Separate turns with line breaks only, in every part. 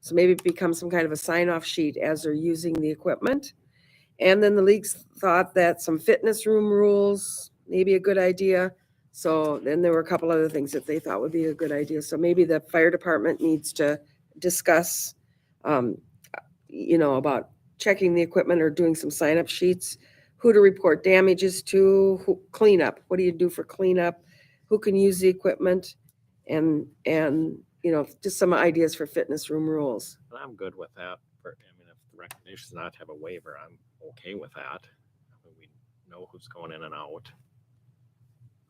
So maybe it becomes some kind of a sign-off sheet as they're using the equipment. And then the leagues thought that some fitness room rules may be a good idea. So then there were a couple other things that they thought would be a good idea. So maybe the fire department needs to discuss, um, you know, about checking the equipment or doing some sign-up sheets, who to report damages to, who, cleanup, what do you do for cleanup? Who can use the equipment? And, and, you know, just some ideas for fitness room rules.
And I'm good with that. For, I mean, if the recognition's not to have a waiver, I'm okay with that. I mean, We know who's going in and out.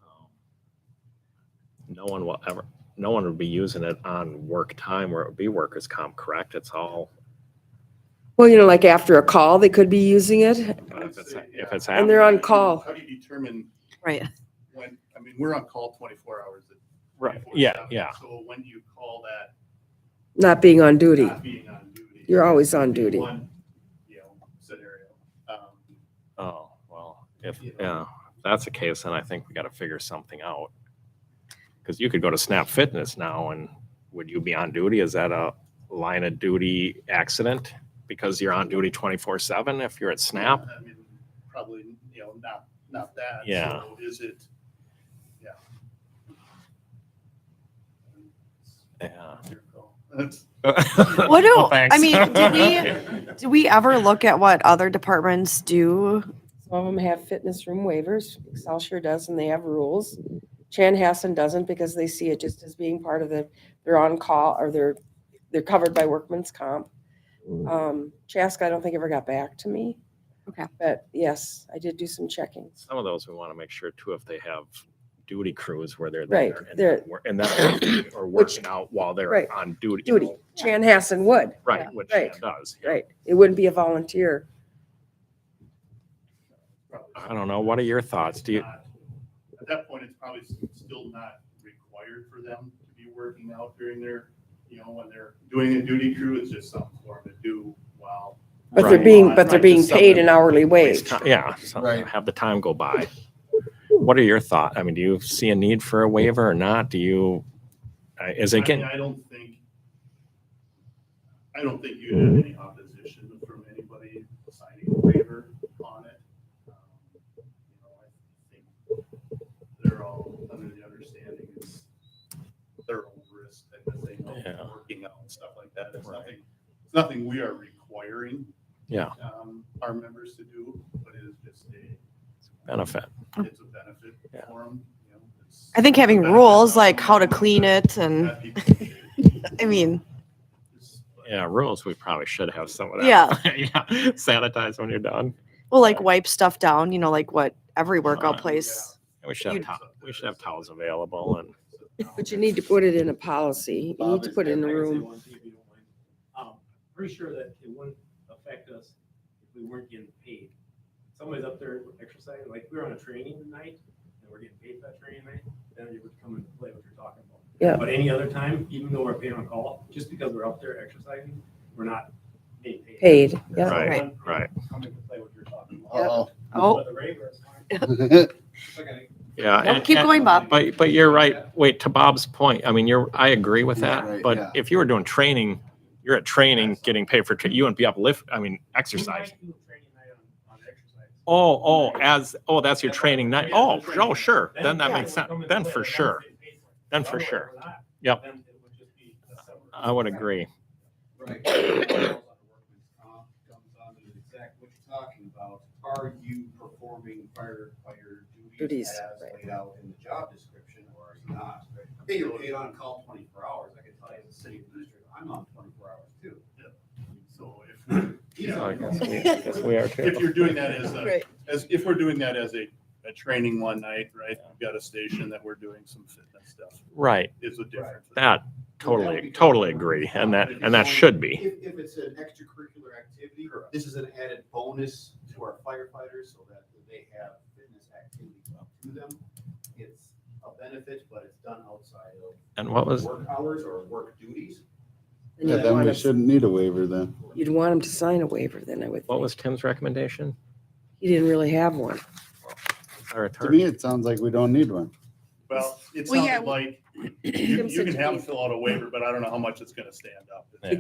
Um, No one will ever, no one would be using it on work time where it would be workers' comp, correct? It's all,
Well, you know, like after a call, they could be using it.
but if it's, if it's
And they're
happening,
on call.
How do you determine
Right.
when, I mean, we're on call twenty-four hours. a-
right,
24/7,
yeah, yeah.
So when do you call that
Not being on duty.
not being on duty?
You're always on duty.
One, you know, scenario. Um,
Oh, well, if, yeah, if that's the case, then I think we gotta figure something out. Cause you could go to Snap Fitness now and would you be on duty? Is that a line of duty accident? Because you're on duty twenty-four seven if you're at Snap?
I mean, Probably, you know, not, not that.
Yeah.
So Is it, yeah.
Yeah.
Your call. That's-
What do,
No,
I
thanks.
mean, do we, do we ever look at what other departments do?
Some of them have fitness room waivers. Excelsior does, and they have rules. Chanhassen doesn't because they see it just as being part of the, they're on call or they're, they're covered by workman's comp.
Mm.
Um, Chaska, I don't think ever got back to me.
Okay.
But yes, I did do some checking.
Some of those we wanna make sure too, if they have duty crews where they're
Right,
there. and
they're-
not wor- And that, or
Which-
working out while
right,
they're on duty. you
Duty.
know,
Chanhassen would,
Right, which
right,
it does. yeah.
right. It wouldn't be a volunteer.
probably
I don't know. What are your thoughts? Do you,
not- At that point, it's probably s- still not required for them to be working out during their, you know, when they're doing a duty crew, it's just something for them to do while.
But they're
Right.
being, but they're
Right,
being
just
paid
something-
an hourly
Waste
wage.
ti- Yeah, so
Right.
have the time go by. What are your thoughts? I mean, do you see a need for a waiver or not? Do you, uh, is
I
it
mean,
getting,
I don't think, I don't think you'd
Mm-hmm.
have any opposition from anybody signing a waiver on it. Um, You know, I think They're all under the understanding it's their own risk type of thing,
Yeah.
working out and stuff like that. It's nothing, it's nothing we are requiring.
Yeah.
um, Our members to do, but it is just a,
benefit?
it's a benefit
Yeah.
for them, you know. it's-
I think having
it's a benefit
rules
not
like how to
only
clean it and,
that people can do,
I mean,
it's- but-
Yeah, rules, we probably should have some of that.
Yeah.
Yeah, sanitize when you're done.
we'll like wipe stuff down, you know, like what every workout
Right.
place.
We should have,
You'd-
to- we should have towels available and,
But you need to put it in a policy. You need
Bob,
to
is
put it
there-
in a
I can say
room.
one thing if you don't mind. Um, Pretty sure that it wouldn't affect us if we weren't getting paid. Somebody's up there exercising, like we were on a training night, and we're getting paid for that training night, then it would come into play what you're talking about.
Yeah.
But any other time, even though we're paying on call, just because we're up there exercising, we're not being paid.
Paid, yeah.
So it
Right,
wouldn't
right.
Come into play what you're talking about.
Yep.
Uh-oh.
Oh,
But the waiver is fine. It's like a-
yeah.
Nope,
and-
keep
and-
going, Bob.
But, but you're right. Wait, to Bob's point, I mean, you're, I agree with
He's
that,
right,
but
yeah.
if you were doing training, you're at training, getting paid for, tra- you wouldn't be uplift, I mean, exercise.
We might do a Training night on, on exercise.
Oh, oh, as, oh, that's your
That's
training
what
night.
I'm saying.
Oh,
That's what I'm
oh,
saying.
sure. Then that
yeah,
makes sense. Then for sure. Then for sure. Yep. I would agree.
Right. Comes on to exact what you're talking about. Are you performing firefighter
Duties,
duties as
right.
laid out in the job description or are you not? Hey, you're paid on call twenty-four hours. I can tell you as a city administrator, I'm on twenty-four hours too.
So if, we're- you
So I guess we-
know,
I guess we are
if
too.
you're doing that as a,
Right.
as, if we're doing that as a, a training one night, right? We've got a station that we're doing some fitness stuff,
Right.
is a difference.
That totally, totally agree. And that, and that should be.
If, if it's an extracurricular activity, this is an added bonus to our firefighters so that they have fitness activities up to them. It's a benefit, but it's done outside
And what
of
was,
work hours or work duties.
And
Yeah,
you'd
then
want
we
'em-
shouldn't need a waiver then.
You'd want them to sign a waiver then, I would
what
think.
was Tim's recommendation?
He didn't really have one.
Our
To
attorney?
me, it sounds like we don't need one.
Well, it
Well, yeah,
sounded like, you,
Jim
you
said
can
to
have
me-
them fill out a waiver, but I don't know how much it's gonna stand up.
Yeah.